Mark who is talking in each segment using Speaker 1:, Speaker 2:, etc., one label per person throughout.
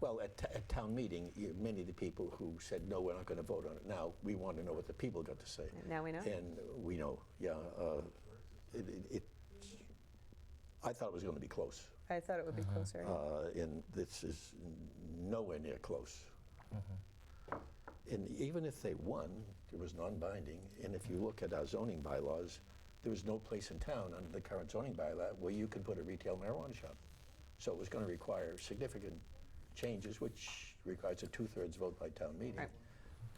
Speaker 1: Well, at, t- at town meeting, you- many of the people who said, no, we're not going to vote on it now, we want to know what the people got to say.
Speaker 2: Now we know.
Speaker 1: And we know, yeah. uh, it- it- it- I thought it was going to be close,
Speaker 2: I thought it would be closer.
Speaker 1: uh, and this is nowhere near close. And even if they won, it was non-binding, and if you look at our zoning bylaws, there was no place in town under the current zoning bylaw where you could put a retail marijuana shop. So it was going to require significant changes, which requires a two-thirds vote by town meeting.
Speaker 2: Right.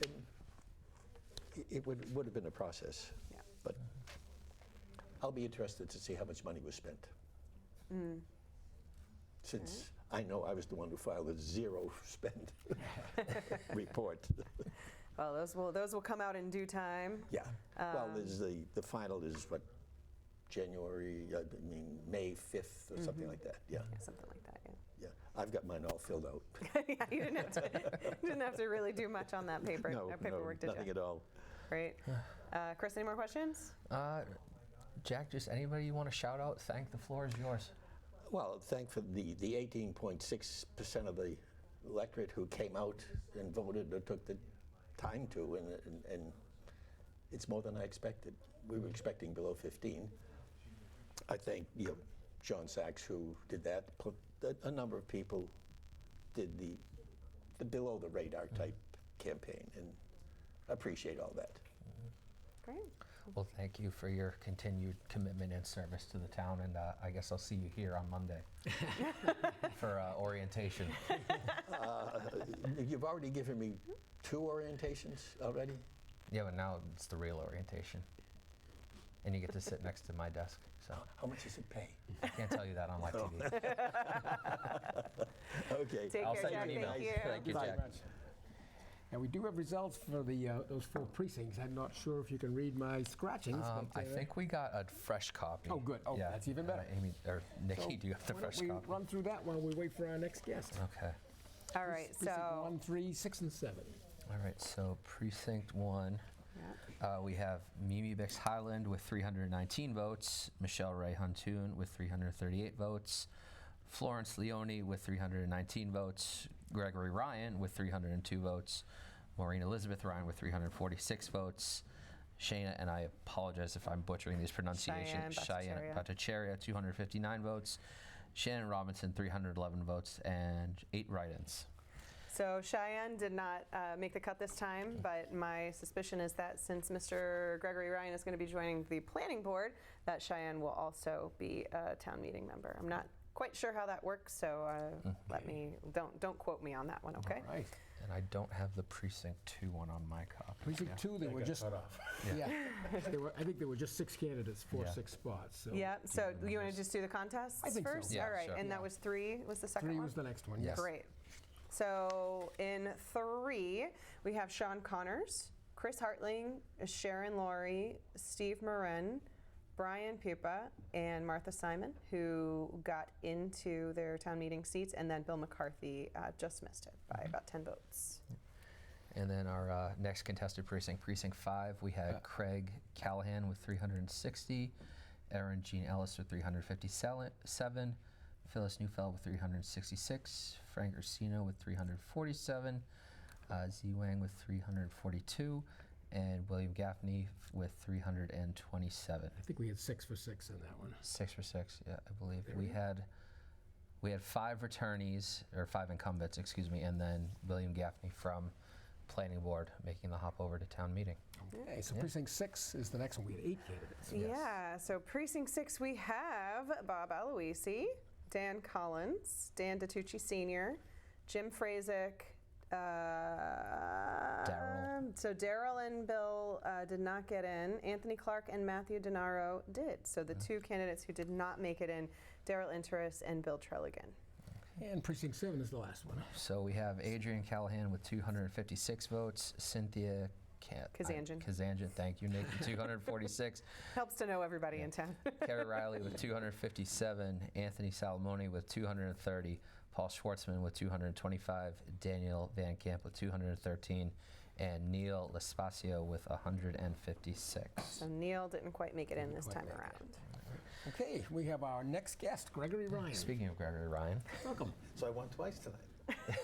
Speaker 1: And i- It would, would have been a process.
Speaker 2: Yeah.
Speaker 1: But I'll be interested to see how much money was spent.
Speaker 2: Mm. Mm-hmm.
Speaker 1: Since I know I was the one who filed a zero spend report.
Speaker 2: Well, those will those will come out in due time. Um,
Speaker 1: Yeah. Well, there's the, the final is what, January, I mean, May 5th or something like that, yeah,
Speaker 2: Yeah, something like that. Mm-hmm. Yeah.
Speaker 1: yeah. I've got mine all filled out.
Speaker 2: yeah you didn't have to you didn't have to really do much on that paper.
Speaker 1: No,
Speaker 2: that
Speaker 1: no,
Speaker 2: paperwork did
Speaker 1: nothing
Speaker 2: you?
Speaker 1: at all.
Speaker 2: Great. Uh, Chris, any more questions?
Speaker 3: Uh, Jack, just anybody you want to shout out, thank the floor is yours.
Speaker 1: Well, thankfully, the, the 18.6% of the electorate who came out and voted or took the time to, and, and, and it's more than I expected. We were expecting below 15. I thank you know, John Sachs who did that. Pl- A, a number of people did the, the below the radar type campaign, and I appreciate all that.
Speaker 2: Great.
Speaker 3: Well, thank you for your continued commitment and service to the town, and uh, I guess I'll see you here on Monday for uh, orientation.
Speaker 1: Uh, You've already given me two orientations already.
Speaker 3: Yeah, but now it's the real orientation, and you get to sit next to my desk. So
Speaker 1: How much does it pay?
Speaker 3: I can't tell you that on live TV.
Speaker 1: Okay.
Speaker 2: Take
Speaker 3: I'll
Speaker 2: care,
Speaker 3: send
Speaker 2: Jack.
Speaker 3: you an
Speaker 2: Thank
Speaker 3: email.
Speaker 2: you.
Speaker 3: Thank you,
Speaker 1: Bye.
Speaker 3: Jack.
Speaker 4: And we do have results for the, uh, those four precincts. I'm not sure if you can read my scratchings.
Speaker 3: Um,
Speaker 4: but,
Speaker 3: I
Speaker 4: uh,
Speaker 3: think we got a fresh copy.
Speaker 4: Oh, good. Oh, that's even better.
Speaker 3: Uh, Amy or Nikki,
Speaker 4: so
Speaker 3: do you have the
Speaker 4: why don't
Speaker 3: fresh
Speaker 4: we
Speaker 3: copy? Uh,
Speaker 4: Run through that while we wait for our next guest.
Speaker 3: Okay.
Speaker 2: All right.
Speaker 4: Precinct
Speaker 2: So
Speaker 4: one, three, six, and seven.
Speaker 3: All right. So precinct one.
Speaker 2: Yeah.
Speaker 3: Uh, we have Mimi Bix Highland with 319 votes, Michelle Ray Huntoon with 338 votes, Florence Leone with 319 votes, Gregory Ryan with 302 votes, Maureen Elizabeth Ryan with 346 votes, Shayna, and I apologize if I'm butchering these pronunciations,
Speaker 2: Cheyenne
Speaker 3: Bhattacharya, 259 votes, Shannon Robinson, 311 votes, and eight write ins.
Speaker 2: so Cheyenne did not uh, make the cut this time, but my suspicion is that since Mr. Gregory Ryan is going to be joining the planning board, that Cheyenne will also be a town meeting member. I'm not quite sure how that works, so uh,
Speaker 3: Mm-hmm.
Speaker 2: let me don't don't quote me on that one, okay?
Speaker 4: All right.
Speaker 3: And I don't have the precinct 2 one on my copy.
Speaker 4: Precinct two, there were just, yeah, there were, I think there were just six candidates for
Speaker 3: Yeah.
Speaker 4: six spots, so.
Speaker 2: Yeah, so you want to just do the contests
Speaker 4: I think so.
Speaker 2: first?
Speaker 3: Yeah,
Speaker 2: All right,
Speaker 3: sure.
Speaker 2: and that was three, was the second
Speaker 4: Three
Speaker 2: one?
Speaker 4: was the next one, yes.
Speaker 2: Great. So in three, we have Sean Connors, Chris Hartling, Sharon Laurie, Steve Marin, Brian Pupa, and Martha Simon, who got into their town meeting seats, and then Bill McCarthy uh, just missed it by about 10 votes.
Speaker 3: And then our uh, next contested precinct, precinct five, we had Craig Callahan with 360, Erin Jean Ellis with 357, Phyllis Neufeld with 366, Frank Ursino with 347, uh, Z Wang with 342, and William Gaffney f- with 327.
Speaker 4: I think we had six for six in that one.
Speaker 3: Six for six, yeah, I believe. We had we had five returnees or five incumbents, excuse me, and then William Gaffney from planning board making the hop over to town meeting.
Speaker 4: Okay, so precinct six is the next one. We had eight candidates.
Speaker 2: Yeah, so precinct six, we have Bob Aloisi, Dan Collins, Dan DiTucci Sr., Jim Frazek, uh,
Speaker 3: Daryl.
Speaker 2: So Daryl and Bill uh, did not get in. Anthony Clark and Matthew Denaro did. So the two candidates who did not make it in, Daryl Interis and Bill Trelligan.
Speaker 4: And precinct seven is the last one.
Speaker 3: So we have Adrian Callahan with 256 votes, Cynthia Ca- I-
Speaker 2: Kazanjian.
Speaker 3: Kazanjian, thank you, Nick, 246.
Speaker 2: Helps to know everybody in town.
Speaker 3: Kerry Riley with 257, Anthony Salamone with 230, Paul Schwartzman with 225, Daniel Van Camp with 213, and Neil Lespacio with 156.
Speaker 2: so Neil didn't quite make it in this
Speaker 4: quite
Speaker 2: time
Speaker 4: make it.
Speaker 2: around.
Speaker 4: Okay, we have our next guest, Gregory Ryan.
Speaker 3: Speaking of Gregory Ryan,
Speaker 4: Welcome.
Speaker 5: So I won twice tonight.